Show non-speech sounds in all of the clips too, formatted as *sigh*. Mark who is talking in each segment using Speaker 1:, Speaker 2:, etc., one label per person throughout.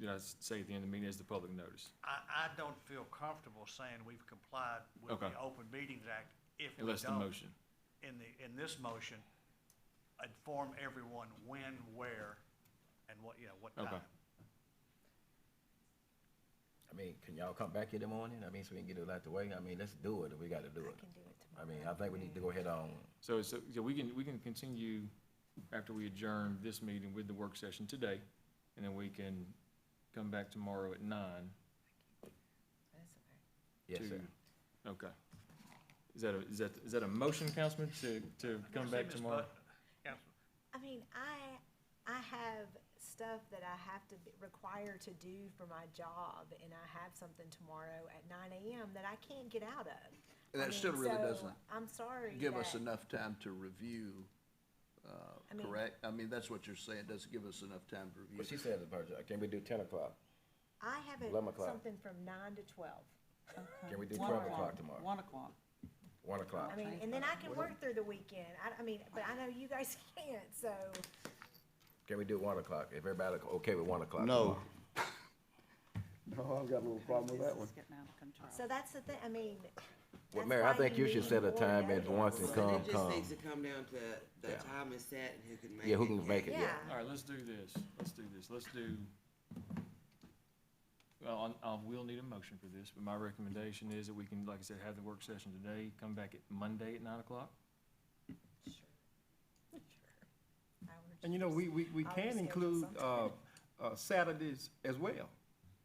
Speaker 1: did I say at the end of the meeting is the public notice?
Speaker 2: I, I don't feel comfortable saying we've complied with
Speaker 1: Okay.
Speaker 2: the Open Meetings Act if we
Speaker 1: Unless the
Speaker 2: don't,
Speaker 1: motion.
Speaker 2: in the, in this motion, inform everyone when, where, and what, you know, what
Speaker 1: Okay.
Speaker 2: time.
Speaker 3: I mean, can y'all come back here in the morning? I mean, so we can get it out the way. I mean, let's do it if we gotta do it.
Speaker 4: can do it
Speaker 3: I mean, I think we need to go ahead on,
Speaker 1: So, so, yeah, we can, we can continue after we adjourn this meeting with the work session today, and then we can come back tomorrow at nine
Speaker 4: That's okay.
Speaker 3: yes,
Speaker 1: to-
Speaker 3: sir.
Speaker 1: Okay. Is that a, is that, is that a motion, Councilman, to, to come
Speaker 2: See,
Speaker 1: back
Speaker 2: Ms.
Speaker 1: tomorrow?
Speaker 2: Butt- Council-
Speaker 4: I mean, I, I have stuff that I have to be required to do for my job, and I have something tomorrow at nine AM that I can't get out of. I
Speaker 5: And that still
Speaker 4: mean,
Speaker 5: really
Speaker 4: so
Speaker 5: doesn't
Speaker 4: I'm sorry.
Speaker 5: give us
Speaker 4: that-
Speaker 5: enough time to review, uh,
Speaker 4: I mean-
Speaker 5: correct? I mean, that's what you're saying, doesn't give us enough time to
Speaker 3: But she
Speaker 5: review.
Speaker 3: said, "Virgil, can we do ten o'clock?
Speaker 4: I have a-
Speaker 3: 11 o'clock.
Speaker 4: something from nine to twelve. Uh,
Speaker 3: Can we do
Speaker 6: One
Speaker 3: twelve o'clock tomorrow?
Speaker 6: One o'clock.
Speaker 3: One o'clock.
Speaker 4: I mean, and then I can work through the weekend. I, I mean, but I know you guys *laughs* can't, so,
Speaker 3: Can we do one o'clock? If everybody okay with one o'clock?
Speaker 7: No.
Speaker 3: tomorrow?
Speaker 7: No, I've got a little problem with that one.
Speaker 6: This is getting out of control.
Speaker 4: so that's the thing, I mean.
Speaker 3: Well,
Speaker 4: that's
Speaker 3: Mayor, I
Speaker 4: why
Speaker 3: think you should
Speaker 4: need
Speaker 3: set a
Speaker 4: more
Speaker 3: time at
Speaker 4: notice.
Speaker 3: once and
Speaker 8: But
Speaker 3: come,
Speaker 8: it just
Speaker 3: come.
Speaker 8: needs to come down to the
Speaker 3: Yeah.
Speaker 8: time it's set and who can make it.
Speaker 3: Yeah, who can make it, yeah.
Speaker 4: Yeah.
Speaker 1: All right, let's do this, let's do this, let's do, well, I, I will need a motion for this, but my recommendation is that we can, like I said, have the work session today, come back at Monday at nine o'clock.
Speaker 4: I would
Speaker 7: And you know, we, we, we
Speaker 4: I'll
Speaker 7: can
Speaker 4: reschedule
Speaker 7: include, uh,
Speaker 4: sometime.
Speaker 7: uh, Saturdays as well.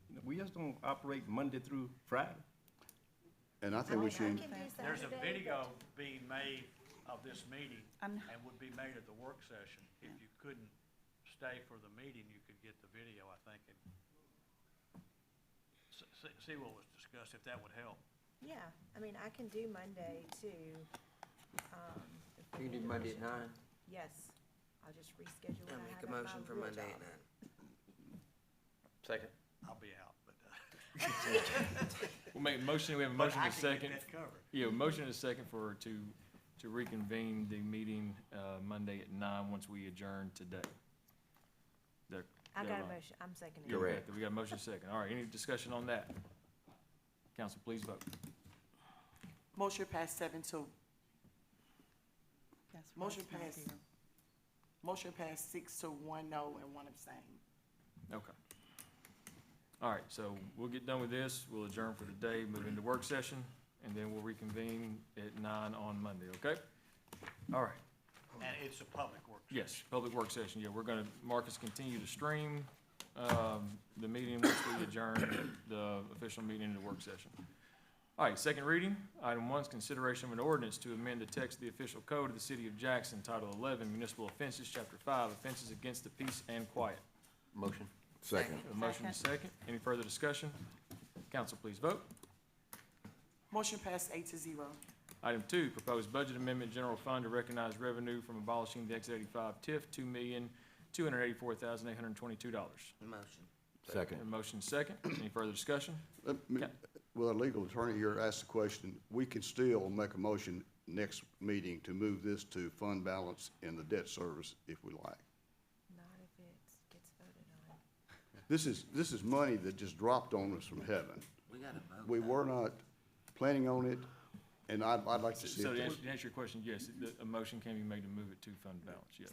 Speaker 7: You know, We just don't operate Monday through Friday.
Speaker 5: And I
Speaker 4: Oh I mean, I can do
Speaker 2: There's a
Speaker 4: Saturday,
Speaker 2: video being made of this meeting
Speaker 6: I'm-
Speaker 2: and would be made at the work session. If you couldn't stay for the meeting, you could get the video, I think, and s- see, see what was discussed, if that would help.
Speaker 4: but- Yeah, I mean, I can do Monday too. Um, if we
Speaker 8: You
Speaker 4: need
Speaker 8: do
Speaker 4: to
Speaker 8: Monday
Speaker 4: reschedule.
Speaker 8: at nine,
Speaker 4: Yes, I'll just reschedule what
Speaker 8: I
Speaker 4: I
Speaker 8: make
Speaker 4: have
Speaker 8: a
Speaker 4: at my
Speaker 8: motion for
Speaker 4: real
Speaker 8: Monday at
Speaker 4: job.
Speaker 8: nine.
Speaker 3: Second.
Speaker 2: I'll be out, but, uh,
Speaker 1: We'll make a motion, we have a
Speaker 2: but
Speaker 1: motion
Speaker 2: I
Speaker 1: and a
Speaker 2: can get
Speaker 1: second.
Speaker 2: that covered.
Speaker 1: Yeah, a motion and a second for, to, to reconvene the meeting, uh, Monday at nine, once we adjourn today. That-
Speaker 4: I
Speaker 1: that
Speaker 4: got a
Speaker 1: right?
Speaker 4: motion, I'm seconding. it.
Speaker 1: Yeah, we got
Speaker 3: Correct.
Speaker 1: that. We got a motion second. All right, any discussion on that? Council, please vote.
Speaker 9: Motion passed seven two.
Speaker 6: That's why
Speaker 9: Motion
Speaker 6: it's not
Speaker 9: passed.
Speaker 6: here.
Speaker 9: Motion passed six to one oh. no and one abstain.
Speaker 1: Okay. All right, so we'll get done with this. We'll adjourn for the day, move into work session, and then we'll reconvene at nine on Monday, okay? All right,
Speaker 2: And it's a public work.
Speaker 1: yes, public work session. Yeah, we're gonna, Marcus, continue to stream, um, the meeting once we adjourn the official meeting into work session. All right, second reading. Item one is consideration of an ordinance to amend the text of the official code of the city of Jackson, Title eleven, municipal offenses, chapter five, offenses against the peace and quiet.
Speaker 3: Motion. Second.
Speaker 1: A motion and a second. Any further discussion? Council, please vote.
Speaker 9: Motion passed eight to zero.
Speaker 1: Item two, proposed budget amendment, general fund to recognize revenue from abolishing the X eighty-five TIF, two million, two hundred eighty-four thousand, eight hundred twenty-two dollars.
Speaker 8: Motion.
Speaker 3: Second.
Speaker 1: motion second. Any further discussion? Okay.
Speaker 10: Well, our legal attorney here asked the question, we can still make a motion next meeting to move this to fund balance in the debt service if we like.
Speaker 4: Not if it gets voted on.
Speaker 10: This is, this is money that just dropped on us from heaven.
Speaker 8: We got a vote.
Speaker 10: We were not planning on it, and I'd, I'd like to see
Speaker 1: So
Speaker 10: it.
Speaker 1: to answer, to answer your question, yes, the, a motion can be made to move it to fund balance, yes.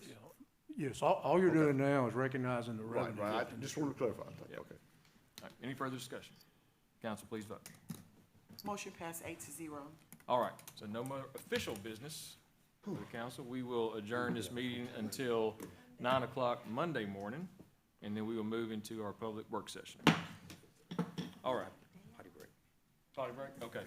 Speaker 11: Yes, all, all you're doing now is recognizing the
Speaker 10: Right,
Speaker 11: revenue.
Speaker 10: right, I just want to clarify, I think.
Speaker 1: Yeah.
Speaker 10: okay.
Speaker 1: All right, any further discussion? Council, please vote.
Speaker 9: Motion passed eight to zero.
Speaker 1: All right, so no more official business for the council. We will adjourn this meeting until nine o'clock Monday morning, and then we will move into our public work session. All right. Potty break. Potty break, okay.